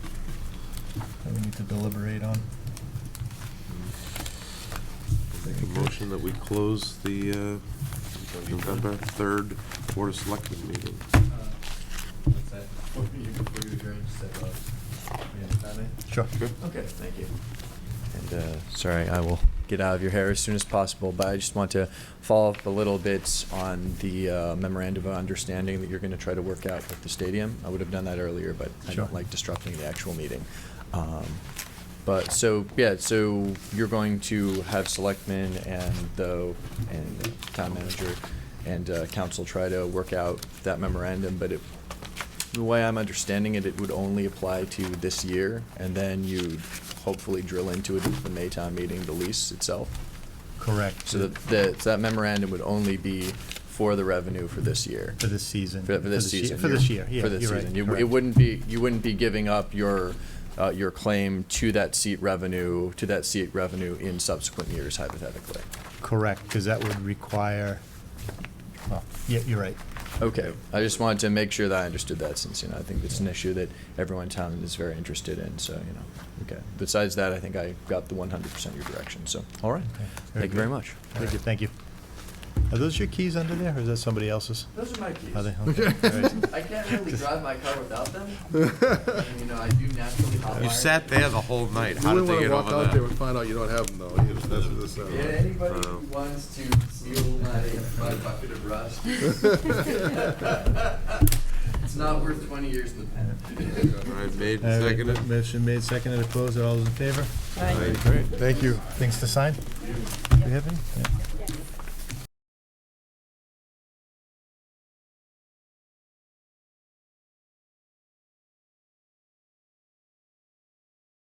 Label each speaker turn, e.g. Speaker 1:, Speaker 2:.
Speaker 1: need to deliberate on.
Speaker 2: Make a motion that we close the uh, November 3rd Board of Selectmen meeting.
Speaker 3: What's that? Before you, before you adjourn, just have a, minute comment?
Speaker 1: Sure.
Speaker 3: Okay, thank you.
Speaker 4: And uh, sorry, I will get out of your hair as soon as possible, but I just want to follow up a little bit on the uh, memorandum of understanding that you're going to try to work out with the stadium. I would have done that earlier, but I
Speaker 1: Sure.
Speaker 4: don't like disrupting the actual meeting. Um, But, so, yeah, so you're going to have selectmen and the, and town manager and uh, council try to work out that memorandum, but it the way I'm understanding it, it would only apply to this year, and then you'd hopefully drill into it at the Maytown meeting, the lease itself.
Speaker 1: Correct.
Speaker 4: So that, that that memorandum would only be for the revenue for this year.
Speaker 1: For this season.
Speaker 4: For, for this
Speaker 1: ye-
Speaker 4: season.
Speaker 1: For this year, yeah,
Speaker 4: For this
Speaker 1: you're right,
Speaker 4: season. You- It
Speaker 1: correct.
Speaker 4: wouldn't be, you wouldn't be giving up your, uh, your claim to that seat revenue, to that seat revenue in subsequent years hypothetically.
Speaker 1: Correct, because that would require, well, yeah, you're right.
Speaker 4: Okay, I just wanted to make sure that I understood that, since, you know, I think it's an issue that everyone in town is very interested in, so, you know, okay. Besides that, I think I got the one hundred percent your direction, so, all right,
Speaker 1: Okay, very
Speaker 4: thank you very
Speaker 1: good.
Speaker 4: much.
Speaker 1: All right, Thank you. Are those your keys under there, or is that somebody else's?
Speaker 3: Those are my keys.
Speaker 1: Are they? Okay, all right.
Speaker 3: I can't really drive my car without them. And, You know, I do naturally hotwire.
Speaker 5: You sat there the whole night.
Speaker 6: You
Speaker 5: How did
Speaker 6: wouldn't
Speaker 5: they
Speaker 6: want
Speaker 5: get
Speaker 6: to walk
Speaker 5: over
Speaker 6: out there
Speaker 5: that?
Speaker 6: and find out you don't have them, though. You know, That's uh, um, what this sounds
Speaker 3: Yeah,
Speaker 6: like.
Speaker 3: anybody who wants to steal my, my bucket of rust. It's not worth twenty years in the pen.
Speaker 5: All right, made,
Speaker 1: All right,
Speaker 5: seconded.
Speaker 1: Motion made, seconded, opposed, all those in favor?
Speaker 5: Aye.
Speaker 1: Great, thank you. Things to sign? Do you have any? Yeah.